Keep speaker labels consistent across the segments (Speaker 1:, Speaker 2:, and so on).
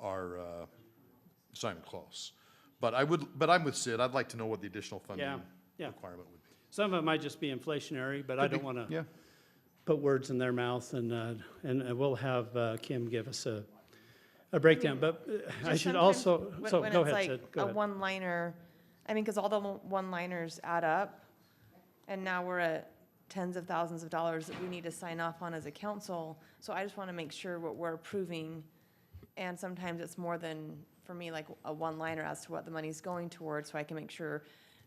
Speaker 1: our, uh, it's not even close. But I would, but I'm with Sid, I'd like to know what the additional
Speaker 2: Yeah,
Speaker 1: funding
Speaker 2: yeah.
Speaker 1: requirement would be.
Speaker 2: Some of it might just be inflationary, but I don't want to
Speaker 1: Yeah,
Speaker 2: put words in their mouth and, uh, and uh, we'll have uh, Kim give us a, a breakdown, but uh, I
Speaker 3: Just
Speaker 2: should
Speaker 3: sometimes
Speaker 2: also,
Speaker 3: when-
Speaker 2: so
Speaker 3: when
Speaker 2: go
Speaker 3: it's
Speaker 2: ahead,
Speaker 3: like
Speaker 2: Sid, go
Speaker 3: a
Speaker 2: ahead.
Speaker 3: one-liner, I mean, because all the one-liners add up, and now we're at tens of thousands of dollars that we need to sign off on as a council. So I just want to make sure what we're approving, and sometimes it's more than, for me, like a one-liner as to what the money's going towards, so I can make sure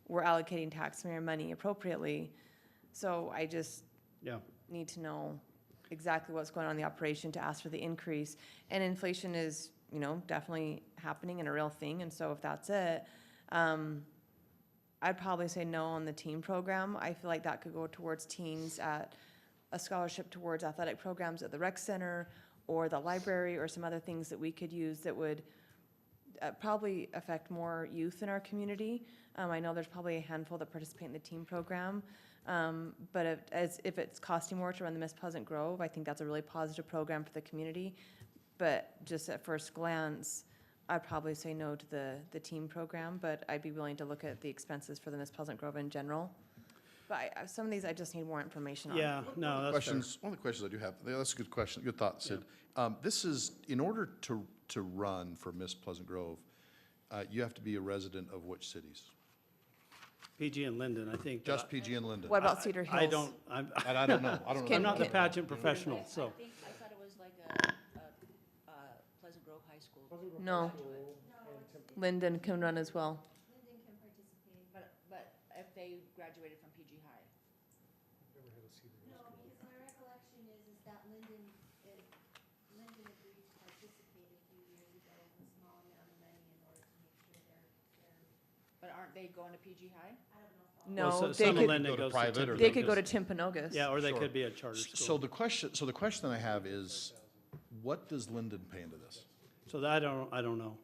Speaker 3: we're allocating taxpayer money appropriately. So I just,
Speaker 2: Yeah,
Speaker 3: need to know exactly what's going on in the operation to ask for the increase. And inflation is, you know, definitely happening and a real thing, and so if that's it, um, I'd probably say no on the teen program. I feel like that could go towards teens at a scholarship towards athletic programs at the rec center or the library or some other things that we could use that would uh, probably affect more youth in our community. Um, I know there's probably a handful that participate in the team program. Um, but if, as, if it's costing more to run the Miss Pleasant Grove, I think that's a really positive program for the community. But just at first glance, I'd probably say no to the, the team program, but I'd be willing to look at the expenses for the Miss Pleasant Grove in general. But I, I- some of these I just need more information on.
Speaker 2: yeah, no, that's fair.
Speaker 1: questions, one of the questions I do have, yeah, that's a good question, good thought, Sid. Um, this is, in order to, to run for Miss Pleasant Grove, uh, you have to be a resident of which cities?
Speaker 2: PG and Linden, I think. uh,
Speaker 1: Just PG and Linden?
Speaker 3: What about Cedar Hills?
Speaker 2: I don't, I'm,
Speaker 1: And I don't know, I don't know.
Speaker 2: I'm not the
Speaker 3: Can-
Speaker 2: pageant professional, so.
Speaker 4: I think, I thought it was like a, a, uh, Pleasant Grove High School.
Speaker 3: No. Linden can run as well.
Speaker 4: But, but if they graduated from PG High.
Speaker 5: No, because my recollection is, is that Lyndon, uh, Lyndon agreed to participate a few years ago with a small amount of money in order to make sure they're, they're,
Speaker 4: But aren't they going to PG High?
Speaker 5: I don't know if all.
Speaker 2: Well, so-
Speaker 3: No, they
Speaker 2: some of
Speaker 3: could,
Speaker 2: Linden
Speaker 1: Go to
Speaker 2: goes
Speaker 1: private or
Speaker 2: Tippecanoe.
Speaker 3: they could go to Timpanogos.
Speaker 2: Yeah, or they
Speaker 1: Sure.
Speaker 2: could be a charter
Speaker 1: So
Speaker 2: school.
Speaker 1: the question, so the question I have is, what does Linden pay into this?
Speaker 2: So that, I don't, I don't know.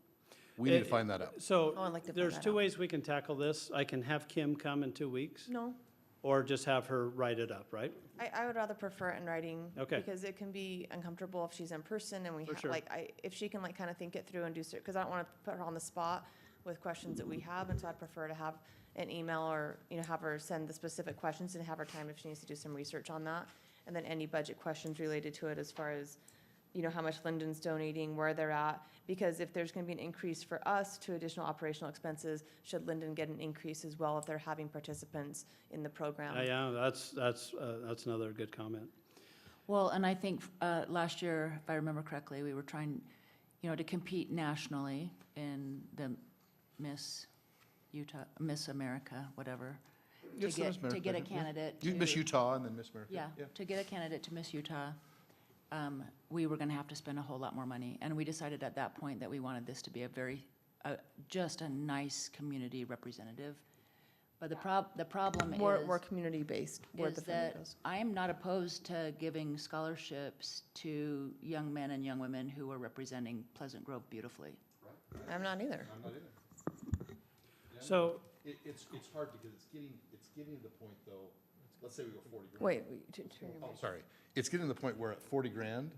Speaker 1: We need to
Speaker 2: It-
Speaker 1: find that out.
Speaker 2: So
Speaker 3: Oh, I'd like to find
Speaker 2: there's
Speaker 3: that
Speaker 2: two
Speaker 3: out.
Speaker 2: ways we can tackle this. I can have Kim come in two weeks
Speaker 3: No,
Speaker 2: or just have her write it up, right?
Speaker 3: I, I would rather prefer it in writing.
Speaker 2: Okay.
Speaker 3: Because it can be uncomfortable if she's in person and we,
Speaker 2: For
Speaker 3: ha-
Speaker 2: sure.
Speaker 3: like, I, if she can like kind of think it through and do, because I don't want to put her on the spot with questions that we have, and so I'd prefer to have an email or, you know, have her send the specific questions and have her time if she needs to do some research on that. And then any budget questions related to it as far as, you know, how much Linden's donating, where they're at. Because if there's going to be an increase for us to additional operational expenses, should Linden get an increase as well if they're having participants in the program?
Speaker 2: Uh, Yeah, that's, that's, uh, that's another good comment.
Speaker 6: Well, and I think uh, last year, if I remember correctly, we were trying, you know, to compete nationally in the Miss Utah, Miss America, whatever. to
Speaker 1: Yes, Miss
Speaker 6: get- To get a
Speaker 1: America, yeah.
Speaker 6: candidate.
Speaker 1: You Miss
Speaker 6: to-
Speaker 1: Utah and then Miss America?
Speaker 6: Yeah, to get a candidate to Miss Utah, um, we were gonna have to spend a whole lot more money. And we decided at that point that we wanted this to be a very, uh, just a nice community representative. But the prob, the problem um, is
Speaker 3: More, more community-based, where
Speaker 6: is
Speaker 3: the funding
Speaker 6: that
Speaker 3: goes.
Speaker 6: I am not opposed to giving scholarships to young men and young women who are representing Pleasant Grove beautifully.
Speaker 3: I'm not either.
Speaker 2: So,
Speaker 1: It, it's, it's hard because it's getting, it's getting to the point though, let's say we go forty grand.
Speaker 3: Wait, wait, t- turn your
Speaker 1: Oh,
Speaker 3: mic.
Speaker 1: sorry. It's getting to the point where at forty grand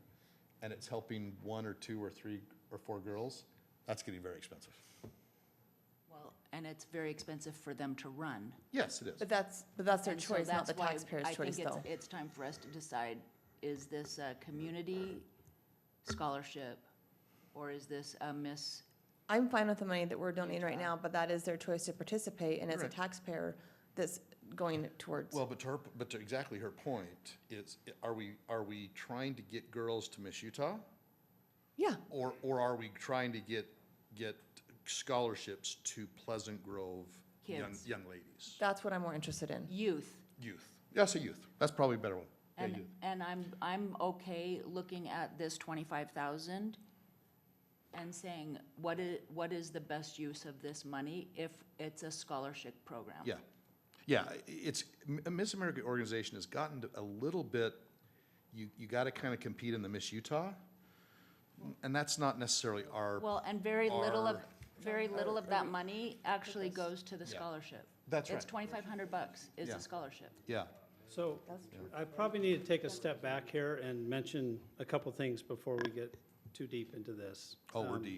Speaker 1: and it's helping one or two or three or four girls, that's getting very expensive.
Speaker 6: Well, and it's very expensive for them to run.
Speaker 1: Yes, it is.
Speaker 3: but that's, but that's their
Speaker 6: And so
Speaker 3: choice, not
Speaker 6: that's
Speaker 3: the
Speaker 6: why
Speaker 3: taxpayer's choice,
Speaker 6: I
Speaker 3: though.
Speaker 6: think it's, it's time for us to decide, is this a community scholarship or is this a Miss?
Speaker 3: I'm fine with the money that we're donating right now, but that is their choice to participate, and as a
Speaker 1: Correct.
Speaker 3: taxpayer that's going towards.
Speaker 1: Well, but to her, but to exactly her point is, are we, are we trying to get girls to Miss Utah?
Speaker 3: Yeah,
Speaker 1: Or, or are we trying to get, get scholarships to Pleasant Grove young,
Speaker 6: Kids.
Speaker 1: young ladies?
Speaker 3: that's what I'm more interested in.
Speaker 6: Youth.
Speaker 1: Youth. Yeah, say youth. That's probably a better one. Yeah,
Speaker 6: And,
Speaker 1: youth.
Speaker 6: and I'm, I'm okay looking at this twenty-five thousand and saying, what is, what is the best use of this money if it's a scholarship program?
Speaker 1: Yeah, yeah, i- it's, M- a Miss America organization has gotten to a little bit, you, you gotta kind of compete in the Miss Utah, and that's not necessarily our,
Speaker 6: Well, and very little of,
Speaker 1: Are-
Speaker 6: very little of that money actually goes to the scholarship.
Speaker 1: That's
Speaker 6: It's
Speaker 1: right.
Speaker 6: twenty-five hundred bucks is
Speaker 1: Yeah.
Speaker 6: the scholarship.
Speaker 1: yeah.
Speaker 2: so I probably need to take a step back here and mention a couple things before we get too deep into this.
Speaker 1: Oh, we're
Speaker 2: Um,
Speaker 1: deep.